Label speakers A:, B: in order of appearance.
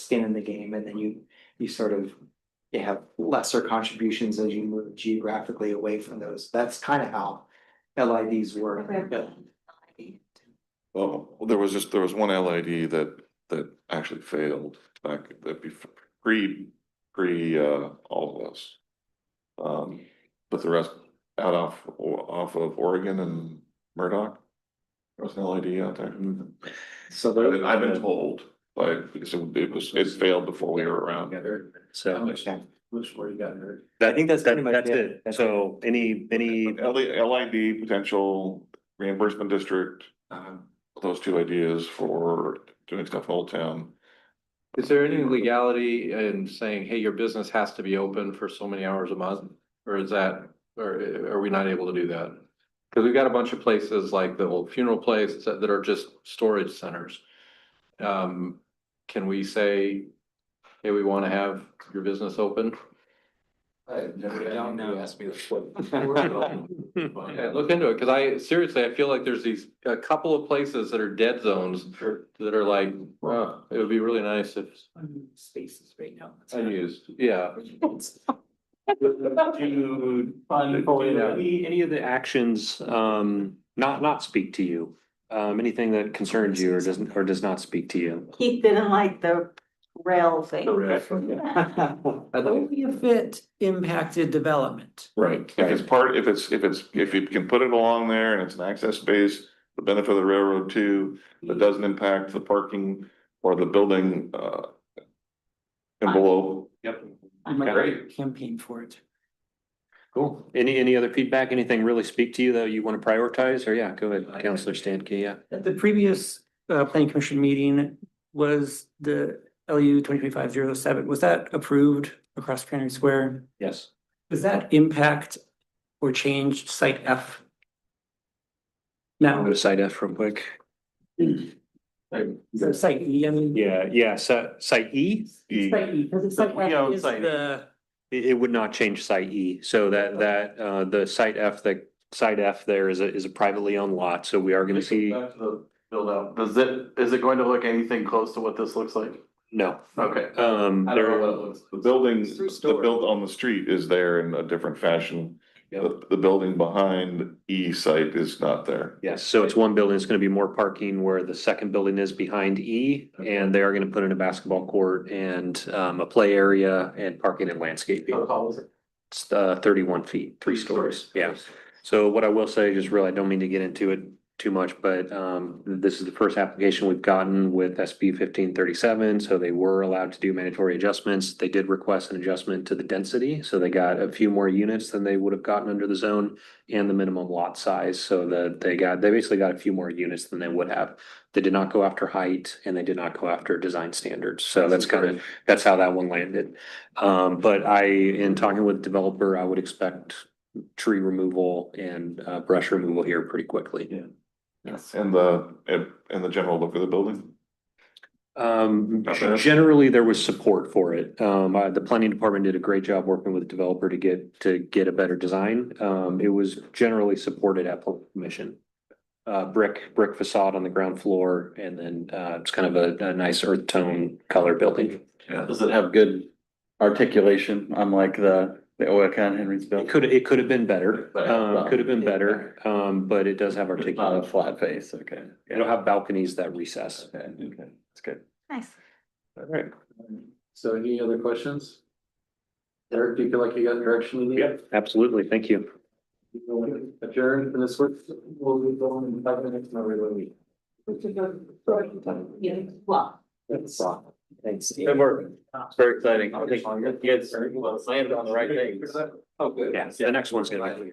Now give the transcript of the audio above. A: skin in the game and then you, you sort of. You have lesser contributions as you move geographically away from those. That's kind of how LIDs work. but-
B: Well, there was just, there was one LID that, that actually failed back, that be pre, pre, uh, all of us. Um, but the rest out off, off of Oregon and Murdoch. There was an LID out there.
A: So
B: I've
A: there.
B: been- I've been told, like, because it it was, it failed before we were around.
C: So
A: Okay.
C: I think Um, that's,
A: Pretty much
C: that's
A: it.
C: it. So any, any,
B: L- LID potential reimbursement district,
A: Um,
B: those two ideas for doing stuff in Old Town.
D: Is there any legality in saying, hey, your business has to be open for so many hours a month? Or is that, or are we not able to do that? Cause we've got a bunch of places like the old funeral place that that are just storage centers. Um, can we say, hey, we wanna have your business open?
A: I don't know.
D: me Yeah, look into it, cause I seriously, I feel like there's these, a couple of places that are dead zones that are like, wow, it would be really nice if
E: Spaces right now.
D: unused, yeah.
C: Oh, any, any of the actions, um, not, not speak to you? Um, anything that concerns you or doesn't, or does not speak to you?
E: He didn't like the rail thing.
F: Only if it impacted development.
B: Right. If it's part, if it's, if it's, if you can put it along there and it's an access base, the benefit of the railroad too, that doesn't impact the parking or the building, uh. Envelope. Yep.
F: I'm a
B: Great.
F: campaign for it.
C: Cool. Any, any other feedback? Anything really speak to you that you want to prioritize? Or yeah, go ahead, Counselor Stanke, yeah.
F: At the previous uh planning commission meeting was the LU twenty twenty five zero seven, was that approved across Canary Square?
C: Yes.
F: Does that impact or change site F? No,
C: I'm gonna side F real quick.
F: so site E, I mean.
C: Yeah, yeah, so site E,
B: E.
F: Site E, because it's site
C: Yeah,
F: F is
C: site E.
F: the,
C: it, it would not change site E, so that, that, uh, the site F, the site F there is a, is a privately owned lot, so we are gonna see,
D: Back to the build out, does it, is it going to look anything close to what this looks like?
C: no.
D: Okay.
C: Um,
D: I don't know
C: there,
D: what it looks.
B: The building,
E: It's through
B: the
E: storage.
B: build on the street is there in a different fashion.
D: Yep.
B: The, the building behind E site is not there.
C: yes, so it's one building, it's gonna be more parking where the second building is behind E, and they are gonna put in a basketball court and, um, a play area and parking and landscaping. It's, uh, thirty-one feet, Oh. three stories, yeah. So what I will say, just really, I don't mean to get into it too much, but um, this is the first application we've gotten with SB fifteen thirty-seven. So they were allowed to do mandatory adjustments. They did request an adjustment to the density, so they got a few more units than they would have gotten under the zone and the minimum lot size, so that they got, they basically got a few more units than they would have. They did not go after height and they did not go after design standards, so that's kind of, that's how that one landed. Um, but I, in talking with developer, I would expect tree removal and uh brush removal here pretty quickly.
B: Yes. And the, and and the general look of the building.
C: Um,
B: Not bad.
C: generally, there was support for it. Um, uh, the planning department did a great job working with the developer to get, to get a better design. Um, it was generally supported at planning commission. Uh, brick, brick facade on the ground floor and then uh, it's kind of a, a nice earth tone color building.
G: Does it have good articulation unlike the, the Oakon Henry's
C: It
G: built?
C: could, it could have been better,
G: But-
C: um, could have been better, um, but it does have
G: It's not a
C: articulation.
G: flat face, okay.
C: It'll have balconies that recess.
G: Okay, okay, that's good.
E: Nice.
G: All right.
D: So any other questions? Eric, do you feel like you got direction in there?
C: Absolutely, thank you.
D: Adjourn and this work, we'll be going in five minutes, not really.
E: Yeah, well.
A: Thanks.
G: Good work. It's very exciting. I think you guys landed on the right things.
D: Oh, good.
C: Yeah, the next one's gonna be.